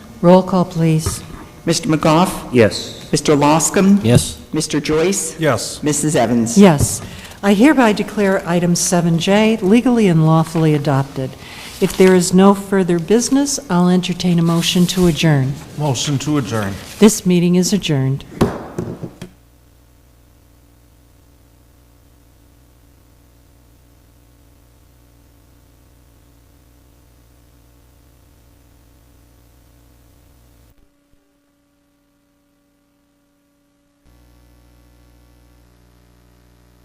Roll call, please. Mr. McGough? Yes. Mr. Loscom? Yes. Mr. Joyce? Yes. Mrs. Evans? Yes. I hereby declare item 7J legally and lawfully adopted. If there is no further business, I'll entertain a motion to adjourn. Motion to adjourn. This meeting is adjourned.